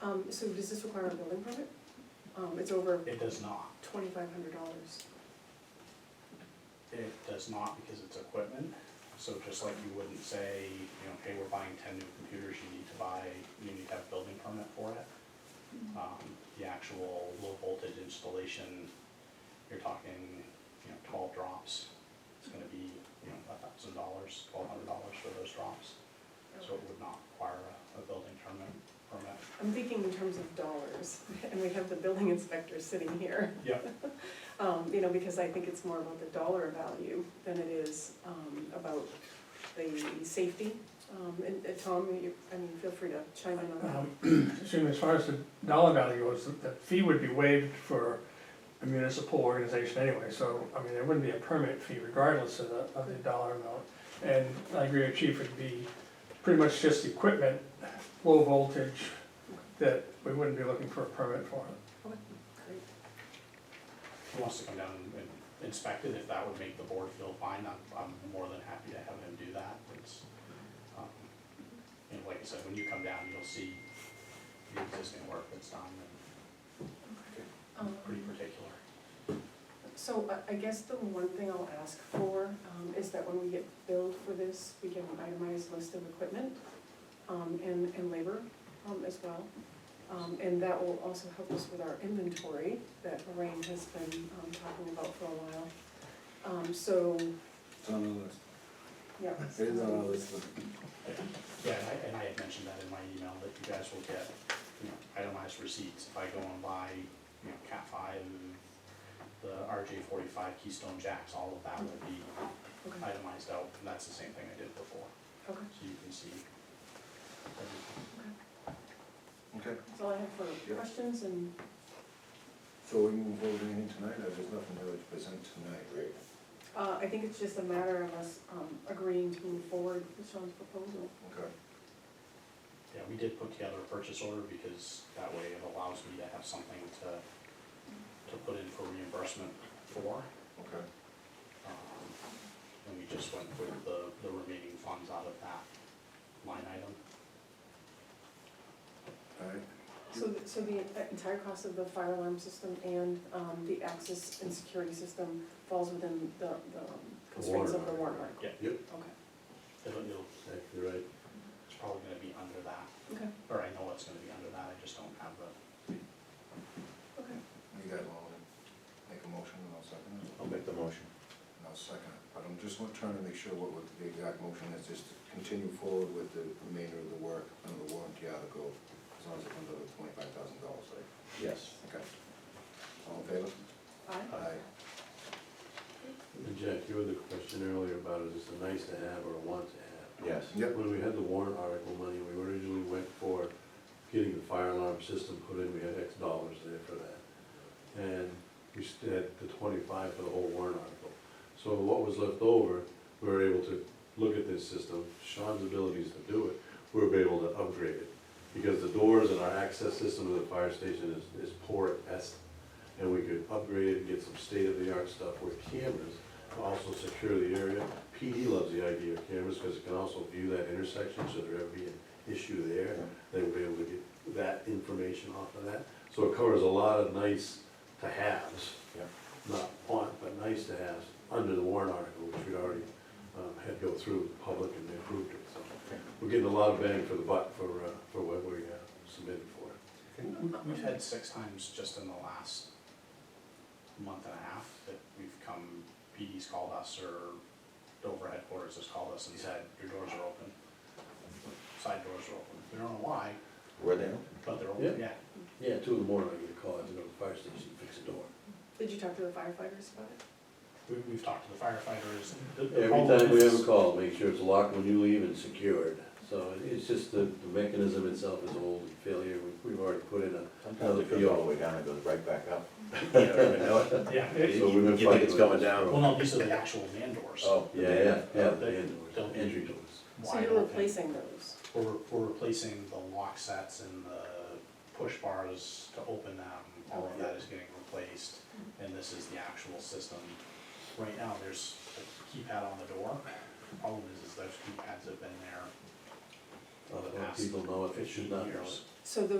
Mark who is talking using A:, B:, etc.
A: Um, so does this require a building permit? Um, it's over
B: It does not,
A: twenty-five hundred dollars.
B: it does not because it's equipment, so just like you wouldn't say, you know, hey, we're buying ten new computers, you need to buy, you need to have a building permit for it. Um, the actual low voltage installation, you're talking, you know, twelve drops, it's gonna be, you know, a thousand dollars, twelve hundred dollars for those drops. So it would not require a, a building permit, permit.
A: I'm thinking in terms of dollars, and we have the building inspector sitting here,
B: Yep,
A: um, you know, because I think it's more about the dollar value than it is, um, about the safety. Um, and, uh, Tom, you, I mean, feel free to chime in on that.
C: Um, Excuse me, as far as the dollar value goes, the- the fee would be waived for a municipal organization anyway, so, I mean, there wouldn't be a permit fee regardless of the, of the dollar amount. And I agree with Chief, it'd be pretty much just equipment, low voltage, that we wouldn't be looking for a permit for.
A: Okay, great.
B: he wants to come down and inspect it, if that would make the board feel fine, I'm, I'm more than happy to have him do that, it's, um, you know, like I said, when you come down, you'll see the existing work that's done, and
A: Um,
B: pretty particular.
A: So uh, I, I guess the one thing I'll ask for, um, is that when we get billed for this, we get an itemized list of equipment, um, and, and labor, um, as well. Um, and that will also help us with our inventory that Lorraine has been, um, talking about for a while. Um, so,
D: It's on the list.
A: yeah.
D: It is on our list, but
B: Yeah, and I, and I had mentioned that in my email, that you guys will get, you know, itemized receipts, if I go and buy, you know, Cat five, the RJ forty-five Keystone Jacks, all of that will be
A: Okay,
B: itemized out, and that's the same thing I did before,
A: okay,
B: so you can see everything.
D: Okay,
A: that's all I have for
D: Yeah.
A: questions and,
D: so we move forward to anything tonight, or there's nothing really to present tonight, right?
A: uh, I think it's just a matter of us, um, agreeing to move forward with Sean's proposal.
D: Okay.
B: Yeah, we did put together a purchase order because that way it allows me to have something to, to put in for reimbursement for.
D: Okay.
B: Um, And we just went with the, the remaining funds out of that line item.
D: Alright,
A: So, th- so the entire cost of the fire alarm system and, um, the access and security system falls within the, the constraints of the warrant article?
B: Yeah,
E: Yep,
A: Okay,
B: it'll, it'll,
E: you're right.
B: it's probably gonna be under that,
A: okay,
B: or I know it's gonna be under that, I just don't have the,
A: okay.
D: you guys want to make a motion and I'll second it?
E: I'll make the motion.
D: And I'll second it, but I'm just wa- trying to make sure what, what the exact motion is, just to continue forward with the remainder of the work under the warranty article, as long as it comes over twenty-five thousand dollars, right?
E: Yes.
D: Okay. All in favor?
A: Aye.
D: Aye.
F: And Jack, you had the question earlier about is this a nice to have or a want to have?
E: Yes.
D: Yep.
F: When we had the warrant article money, we originally went for getting the fire alarm system put in, we had X dollars there for that. And we st- had the twenty-five for the whole warrant article. So what was left over, we were able to look at this system, Sean's abilities to do it, we were able to upgrade it. Because the doors and our access system to the fire station is, is poor at best. And we could upgrade it and get some state-of-the-art stuff with cameras to also secure the area. PD loves the idea of cameras because it can also view that intersection, should there ever be an issue there. They will be able to get that information off of that. So it covers a lot of nice to haves,
E: Yeah.
F: not want, but nice to haves, under the warrant article, which we already um, had go through the public and they approved it. So we're getting a lot of bang for the buck for, uh, for what we uh, submitted for.
B: We've had six times just in the last month and a half that we've come, PD's called us or Dover headquarters has called us and said, your doors are open. Side doors are open. We don't know why,
E: Where they at?
B: but they're open, yeah.
F: Yeah, two in the morning, I get a call, I have to go to the fire station, fix a door.
A: Did you talk to the firefighters about it?
B: We, we've talked to the firefighters. The- the
F: Every
B: problem
F: time we have
B: is-
F: a call, make sure it's locked when you leave and secured. So it's just the the mechanism itself is old and failure. We- We've already put in a,
E: Sometimes it goes all the way down, it goes right back up.
B: Yeah.
F: So
B: it-
F: we've been
E: You think
F: fighting
E: it's
F: with
E: going
F: this.
B: Well,
E: down?
B: no, these are the actual man doors.
E: Oh,
F: yeah, yeah, yeah,
B: They-
F: the end doors,
B: they'll be-
F: entry doors.
A: So
B: Wide
A: you're
B: open.
A: replacing those?
B: We're, we're replacing the lock sets and the push bars to open them, all of that is getting replaced, and this is the actual system. Right now, there's a keypad on the door, The problem is, is those keypads have been there
F: Other people know if it should not know it.
B: years.
A: So those